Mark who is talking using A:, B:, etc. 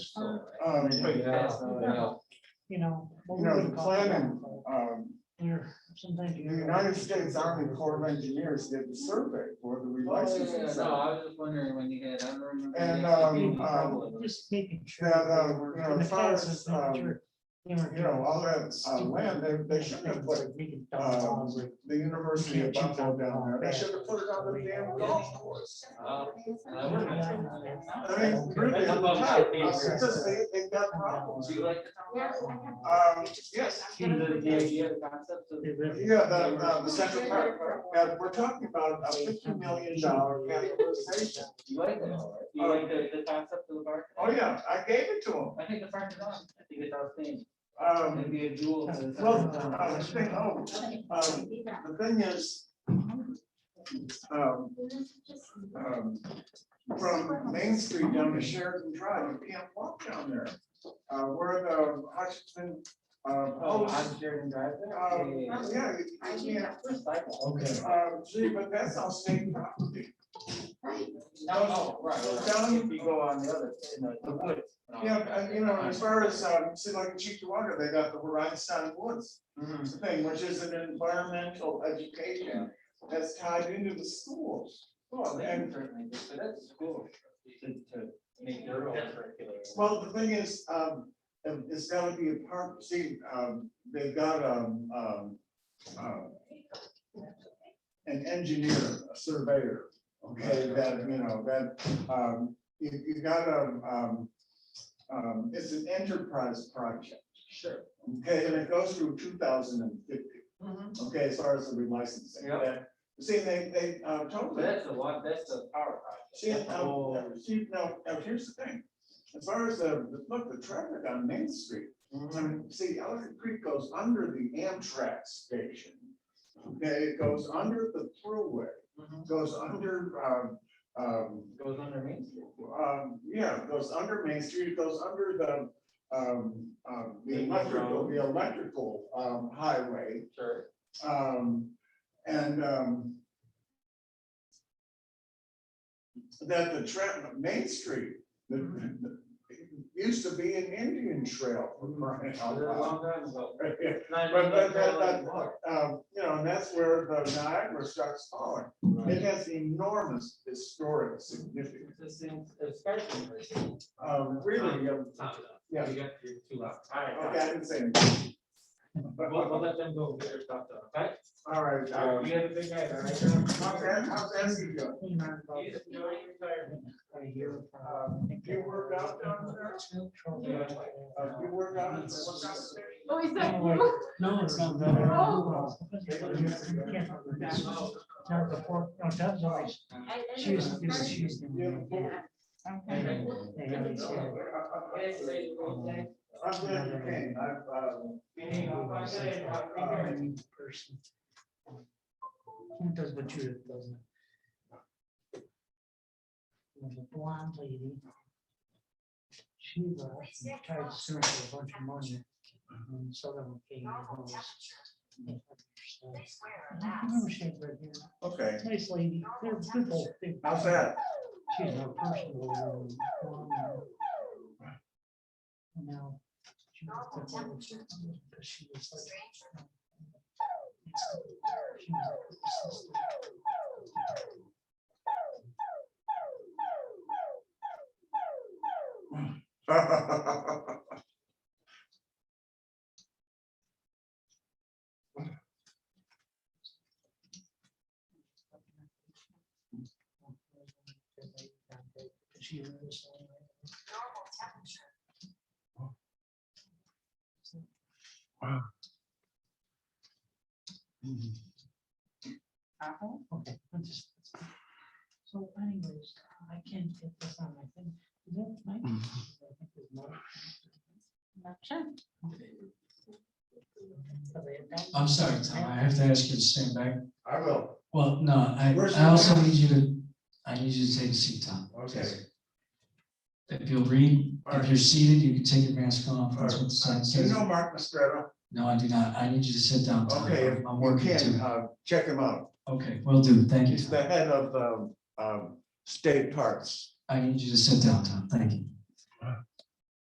A: Um,
B: Yeah, yeah.
C: you know. what we
A: You know,
C: would
A: the
C: call it.
A: planning, um,
C: There, sometimes.
A: the
C: you-
A: United States Army Corps of Engineers did the survey for the
B: No, I was
A: relationships.
B: just wondering when you had, I don't remember.
A: And,
B: the-
A: um, um,
C: Just making sure.
A: that,
C: that
A: uh,
C: they were-
A: you know,
C: in the
A: as far
C: past,
A: as,
C: it's not
A: um,
C: sure. They
A: You know, all that, uh, land, they, they should have put, um, the University of Buffalo down there, they should have put it on the damn golf course.
B: Uh, and I wouldn't have
C: Yeah.
B: known that.
A: I mean, really, at the time, it's just they, they've got problems.
B: Do you like the
A: Um, yes,
B: Do you like the idea, the concept of?
A: yeah, the, the, the Central Park, uh, and we're talking about a fifty million dollar categorization.
B: You like that? You like the, the concept of the park?
A: Oh, yeah, I gave it to him.
B: I think the park is on, I think it's outstanding,
A: Um,
B: it'd be a jewel. to the-
A: Well, uh, the thing, oh, um, the thing is, um, um, from Main Street down to Sheridan Drive, you can't walk down there. Uh, where the Hutchinson, uh,
B: Oh,
A: post,
B: I'm Sheridan Drive there?
A: um,
B: Yeah, yeah,
A: yeah, you
D: Oh,
A: can't,
B: yeah. Cycle.
E: Okay.
A: um, gee, but that's all state property.
B: No, no, oh, right, right.
A: Down-
B: If you go on the other, you know, the woods.
A: Yeah, and you know, as far as, um, see like in Cheektowaga, they got the Horizon Woods.
B: Mhm.
A: thing, which is an environmental education that's tied into the schools.
B: Well, they can
A: And,
B: certainly, do, but that's school, to, to make their own curriculum.
A: well, the thing is, um, um, it's gotta be a part, see, um, they've got, um, um, um, an engineer, a surveyor, okay, that, you know, that, um, you, you got a, um, um, it's an enterprise project,
B: Sure.
A: okay, and it goes through two thousand and fifty. Okay, as far as the relicensing.
B: Yeah.
A: that- See, they, they, uh,
B: But
A: totally,
B: that's a lot, that's a power project.
A: see,
B: That's a whole-
A: now, see, now, now, here's the thing. As far as the, the- look, the traffic on Main Street, I
B: Mhm.
A: mean, see, Ellicott Creek goes under the Amtrak station. Okay, it goes under the thruway,
B: Mhm.
A: goes under, um, um,
B: Goes under Main Street.
A: um, yeah, it goes under Main Street, it goes under the, um, um, the
B: Main
A: electrical,
B: road.
A: the electrical, um, highway.
B: Sure.
A: Um, and, um, that the tra- Main Street, the, the- used to be an Indian trail for crying out
B: They're a long
A: loud.
B: time ago.
A: Right,
B: It's not
A: But-
B: even that
A: but-
B: long
A: but- but-
B: anymore.
A: Um, you know, and that's where the Niagara starts falling.
B: Mm-hmm.
A: It has enormous historic significance.
B: It's the same, it's spectrum version.
A: Um, really, um,
B: Time it up.
A: yeah,
B: You got your two left. All right.
A: okay, I didn't say.
B: We'll, we'll
A: anything.
B: let them go, get their stuff done, okay?
A: All right, um,
B: You have a big night, all right?
A: how's
B: John?
A: that, how's that you doing?
B: You just enjoy your retirement.
A: Um, do you work out down there? Uh, do you work out? Work out there?
D: Oh, is that you?
C: No, it's not.
D: Oh.
C: Now, before, no, Deb's always,
D: I- I
C: she was,
D: don't know.
C: she was.
D: Yeah.
C: And- and I said,
B: Yes, ladies, go ahead.
A: I'm glad you came. I've, um,
B: Meeting on Monday, I'll be here.
C: um, person. Who does what you, do, doesn't? it? There's a blonde lady. She left and tried to sue her for a bunch of money. And so then we came. Mm-hmm.
A: Okay,
C: Nice lady, they're good old thing.
A: how's that?
C: She's my personal. um, Now. she was the one who- Because she was like. she was like, "This is the-" She was. Okay, I'm just. So anyways, I can't get this on my thing. Is that my? I think there's more. Are they done?
E: I'm sorry, Tom, I have to ask you to stand back.
A: I will.
E: Well, no, I,
A: Where's
E: I also
A: the-
E: need you to, I need you to take a seat, Tom.
A: Okay.
E: If you'll read,
A: Alright.
E: if you're seated, you can take your mask off. That's what the sign
A: Do you
E: says.
A: know Mark Mastretta?
E: No, I do not. I need you to sit down, Tom.
A: Okay, if
E: I'm- I'm
A: you
E: working
A: can,
E: too.
A: uh, check him out.
E: Okay, will do. Thank you.
A: He's the
E: Tom.
A: head of, um, um, state parks.
E: I need you to sit down, Tom. Thank you.